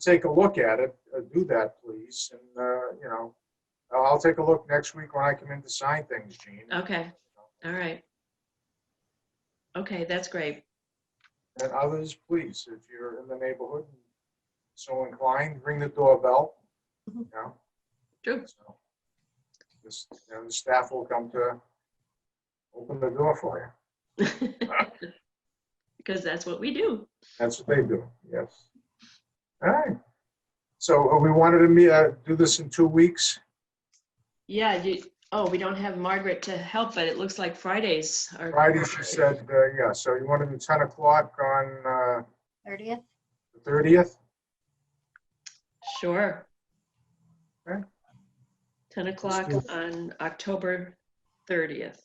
take a look at it, uh, do that, please. And, uh, you know, I'll I'll take a look next week when I come in to sign things, Gene. Okay, all right. Okay, that's great. And others, please, if you're in the neighborhood and so inclined, ring the doorbell, you know? Mm-hmm. True. So, This, you know, the staff will come to open the door for you. Because that's what we do. That's what they do, yes. All right. So uh, we wanted to meet, uh, do this in two weeks. Yeah, you, oh, we don't have Margaret to help, but it looks like Fridays are. Friday, she said, uh, yeah, so you want to do 10 o'clock on uh, 30th? the 30th? Sure. Okay. 10 o'clock do it. on October 30th.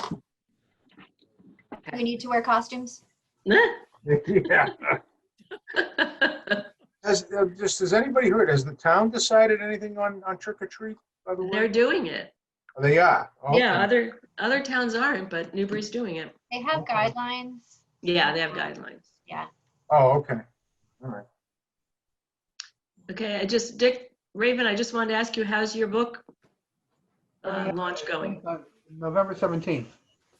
Do we need to wear costumes? Yeah. Has, uh, just, has anybody heard, has the town decided anything on, on trick or treat, by the They're way? doing it. Oh, They are? Okay. Yeah, other, other towns aren't, but Newbury's doing it. They have Okay. guidelines. Yeah, they have guidelines. Oh, okay. All right. Okay, I just, Dick, Raven, I just wanted to ask you, how's your book Oh, uh, launch going? November 17th,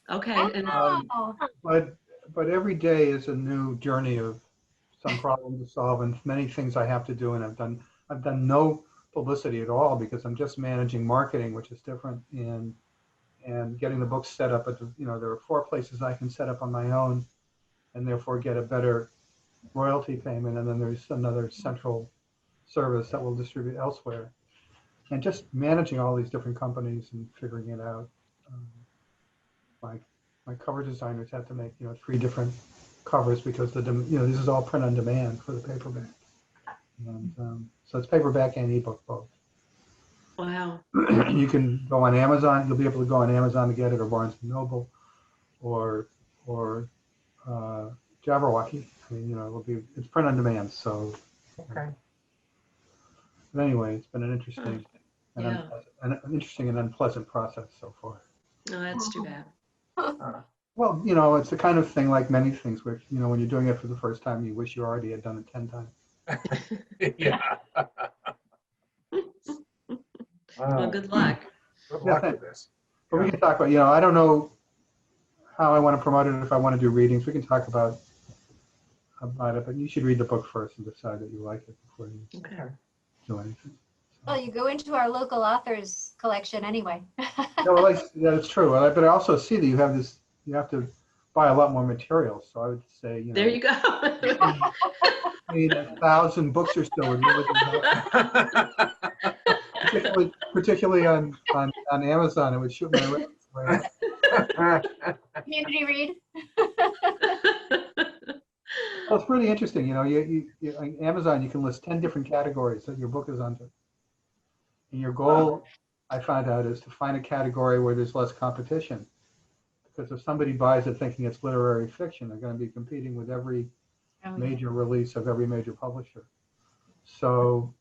Okay, and um, Oh, but, but every day is a new journey of some problem to solve and many things I have to do and I've done, I've done no publicity at all because I'm just managing marketing, which is different and, and getting the books set up, but you know, there are four places I can set up on my own and therefore get a better royalty payment and then there's another central service that will distribute elsewhere. And just managing all these different companies and figuring it out. um, Like my cover designers have to make, you know, three different covers because the, dem- you know, this is all print on demand for the paperback. And um, so it's paperback and ebook both. wow, you can go on Amazon, you'll be able to go on Amazon to get it or Barnes and Noble or, or uh, Jabberwocky. I mean, you know, it'll be, it's print on demand. So Okay. but anyway, it's been an interesting, and Yeah. unpleasant, an an interesting and unpleasant process so far. no, that's too bad. Well, you know, it's the kind of thing like many things where, you know, when you're doing it for the first time, you wish you already had done it 10 times. Yeah. Well, Oh. Uh, good luck. Good luck with this. But we can talk about, you know, I don't know how I want to promote it, if I want to do readings, we can talk about, about it, but you should read the book first and decide that you like it before you Okay. do anything. well, you go into our local authors collection anyway. No, well, that's, that's true, Well, I- but I also see that you have this, you have to buy a lot more materials, so I would say, you know. There you go. need a thousand books or so. would be looking at- Particularly, particularly on, on, on Amazon, it would shoot my. way. Community read? Well, it's really interesting, you know, you, you, you, on Amazon, you can list ten different categories that your book is under. And your goal, I found out, is to find a category where there's less competition. Because if somebody buys it thinking it's literary fiction, they're gonna be competing with every major release of every major publisher. So,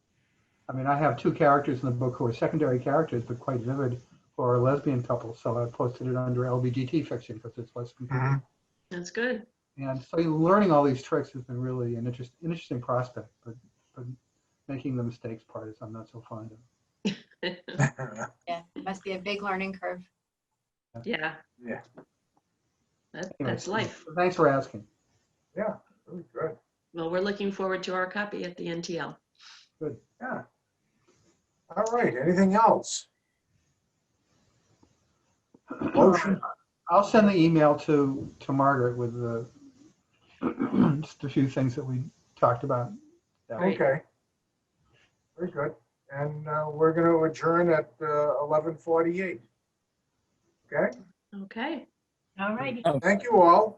I mean, I have two characters in the book who are secondary characters, but quite vivid, who are a lesbian couple. So I posted it under LBGT fiction because it's less competing. Mhm. That's good. And so you're learning all these tricks has been really an, interest, an interesting prospect, but, but making the mistakes part is I'm not so fond of. Yeah, must be a big learning curve. Yeah. Yeah. That, Anyway, that's life. Thanks for asking. Really Good, Well, we're looking forward to our copy at the NTL. yeah. All right, anything else? Motion, I'll send the email to, to Margaret with the, just a few things that we talked about. Great. okay. Very good, and uh, we're going to adjourn at uh, 11:48. Okay, Okay. All righty. thank you all.